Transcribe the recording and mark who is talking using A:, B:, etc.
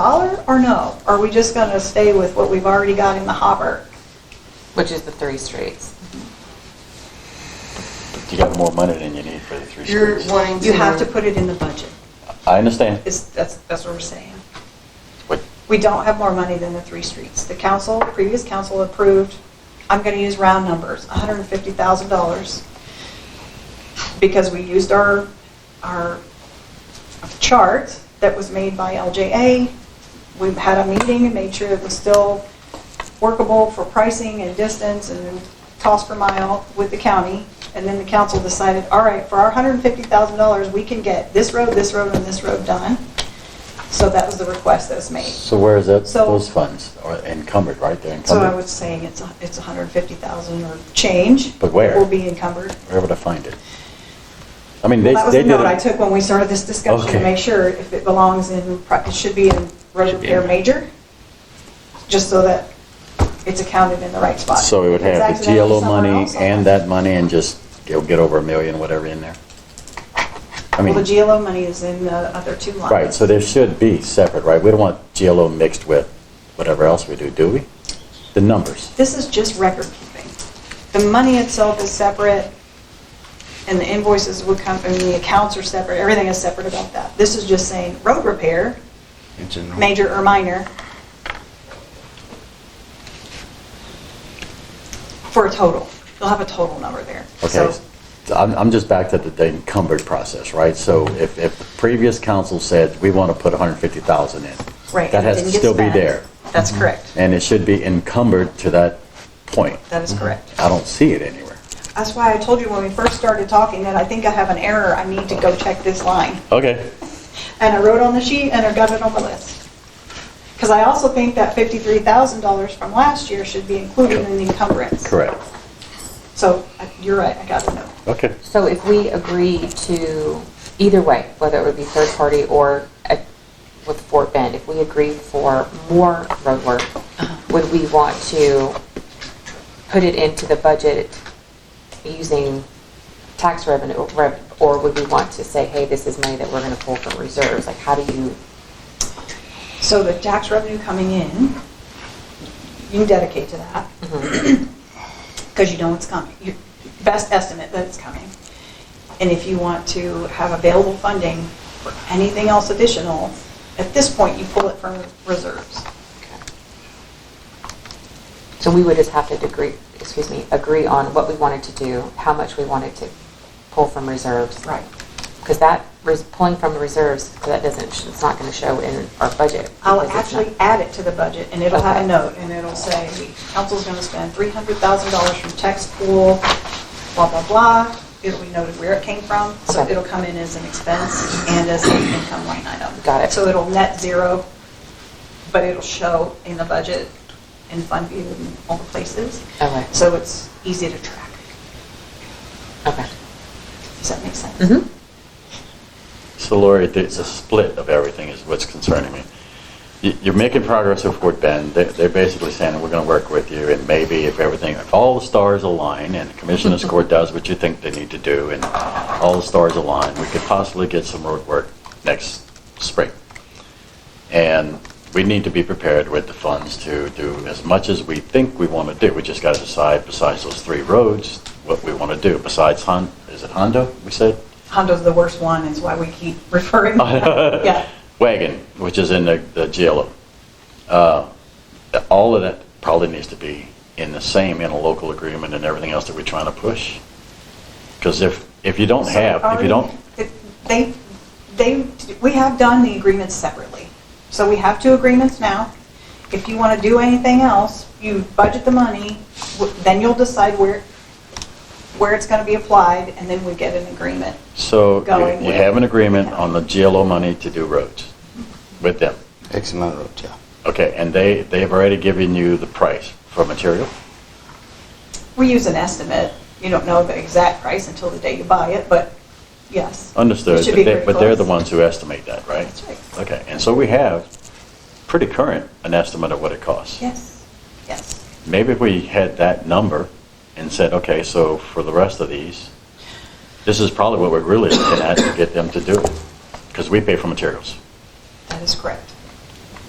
A: dollar or no? Are we just going to stay with what we've already got in the hopper?
B: which is the three streets.
C: You got more money than you need for the three
D: You're
C: streets.
D: wanting to.
A: You have to put it in the budget,
C: I understand.
A: is, that's, that's what we're saying.
C: What-
A: We don't have more money than the three streets. The council, previous council approved, I'm going to use round numbers, $150,000. Because we used our, our chart that was made by LJA. We had a meeting and made sure it was still workable for pricing and distance and cost per mile with the county. And then the council decided, all right, for our $150,000, we can get this road, this road, and this road done. So that was the request that was made.
C: So where is that,
A: So-
C: those funds are encumbered, right? They're
A: So I
C: encumbered.
A: was saying it's, a- it's 150,000 or change.
C: But where?
A: Will be encumbered.
C: Where would I find it? I mean, they,
A: That was
C: they
A: the
C: did.
A: note
C: it-
A: I took when we started this discussion, to
C: Okay.
A: make sure if it belongs in, pro- it should be in road
C: Should be
A: repair
C: in there.
A: major, just so that it's accounted in the right spot.
C: So we would
A: If it's
C: have the
A: accidental
C: GLO
A: somewhere
C: money
A: else, I'll-
C: and that money and just, you'll get over a million, whatever in there. I
A: Well, the
C: mean,
A: GLO money is in the other two lines.
C: right, so there should be separate, right? We don't want GLO mixed with whatever else we do, do we? The numbers.
A: This is just record keeping. The money itself is separate, and the invoices would come, and the accounts are separate, everything is separate about that. This is just saying road repair,
E: It's in-
A: major or minor, for a total. You'll have a total number there.
C: Okay,
A: So-
C: so I'm, I'm just back to the- the encumbered process, right? So if, if the previous council said, we want to put 150,000 in.
A: Right.
C: That
A: and it
C: has to
A: didn't get
C: still be
A: spent.
C: there. Mm-hmm.
A: That's correct.
C: And it should be encumbered to that point.
A: That is correct.
C: I don't see it anywhere.
A: That's why I told you when we first started talking that I think I have an error. I need to go check this line.
C: Okay.
A: And I wrote on the sheet and I got it on the list. Because I also think that $53,000 from last year should be included in the encumbrance.
C: Correct.
A: So I- you're right, I got a note.
C: Okay.
B: So if we agree to, either way, whether it would be third party or uh, with Fort Bend, if we agree for more road work,
A: Uh-huh.
B: would we want to put it into the budget using tax revenue, or rev- or would we want to say, hey, this is money that we're going to pull from reserves? Like, how do you,
A: So the tax revenue coming in, you can dedicate to that. because you know it's coming, your best estimate that it's coming. And if you want to have available funding for anything else additional, at this point, you pull it from reserves.
B: so we would just have to agree, excuse me, agree on what we wanted to do, how much we wanted to pull from reserves.
A: Right.
B: Because that, res- pulling from the reserves, that doesn't, sh- it's not going to show in our budget.
A: I'll
B: because it's
A: Oh, actually
B: not-
A: add it to the budget, and it'll have a
B: Okay.
A: note, and it'll say, council's going to spend $300,000 from tax pool, blah, blah, blah. It'll be noted where it came from, so
B: Okay.
A: it'll come in as an expense and as an income line item.
B: Got it.
A: So it'll net zero, but it'll show in the budget in Fund View and all the places.
B: Okay.
A: So it's easy to track.
B: Okay.
A: Does that make sense?
B: Mhm.
C: So Lori, there's a split of everything is what's concerning me. You- You're making progress with Fort Bend. They- They're basically saying, we're going to work with you, and maybe if everything, if all the stars align, and Commissioner's Court does what you think they need to do, and all the stars align, we could possibly get some road work next spring. And we need to be prepared with the funds to do as much as we think we want to do. We just got to decide, besides those three roads, what we want to do, besides Hon, is it Hondo, we said?
A: Hondo's the worst one, is why we keep referring. Yeah.
C: wagon, which is in the, the jail. Uh, all of that probably needs to be in the same interlocal agreement and everything else that we're trying to push. Because if, if you don't have, if you don't,
A: um, It- They, they, we have done the agreements separately. So we have two agreements now. If you want to do anything else, you budget the money, w- then you'll decide where, where it's going to be applied, and then we get an agreement.
C: so
A: Going
C: you- you
A: with-
C: have an agreement on the GLO money to do roads with them.
E: X amount of roads, yeah.
C: Okay, and they, they've already given you the price for material?
A: We use an estimate. You don't know the exact price until the day you buy it, but yes. it
C: Understood,
A: should
C: but
A: be
C: they-
A: pretty
C: but they're the
A: close.
C: ones who estimate that, right?
A: That's right.
C: Okay, and so we have pretty current an estimate of what it costs.
A: Yes, yes.
C: Maybe if we had that number and said, okay, so for the rest of these, this is probably what we're really looking at to get them to do it, because we pay for materials.
A: That is correct.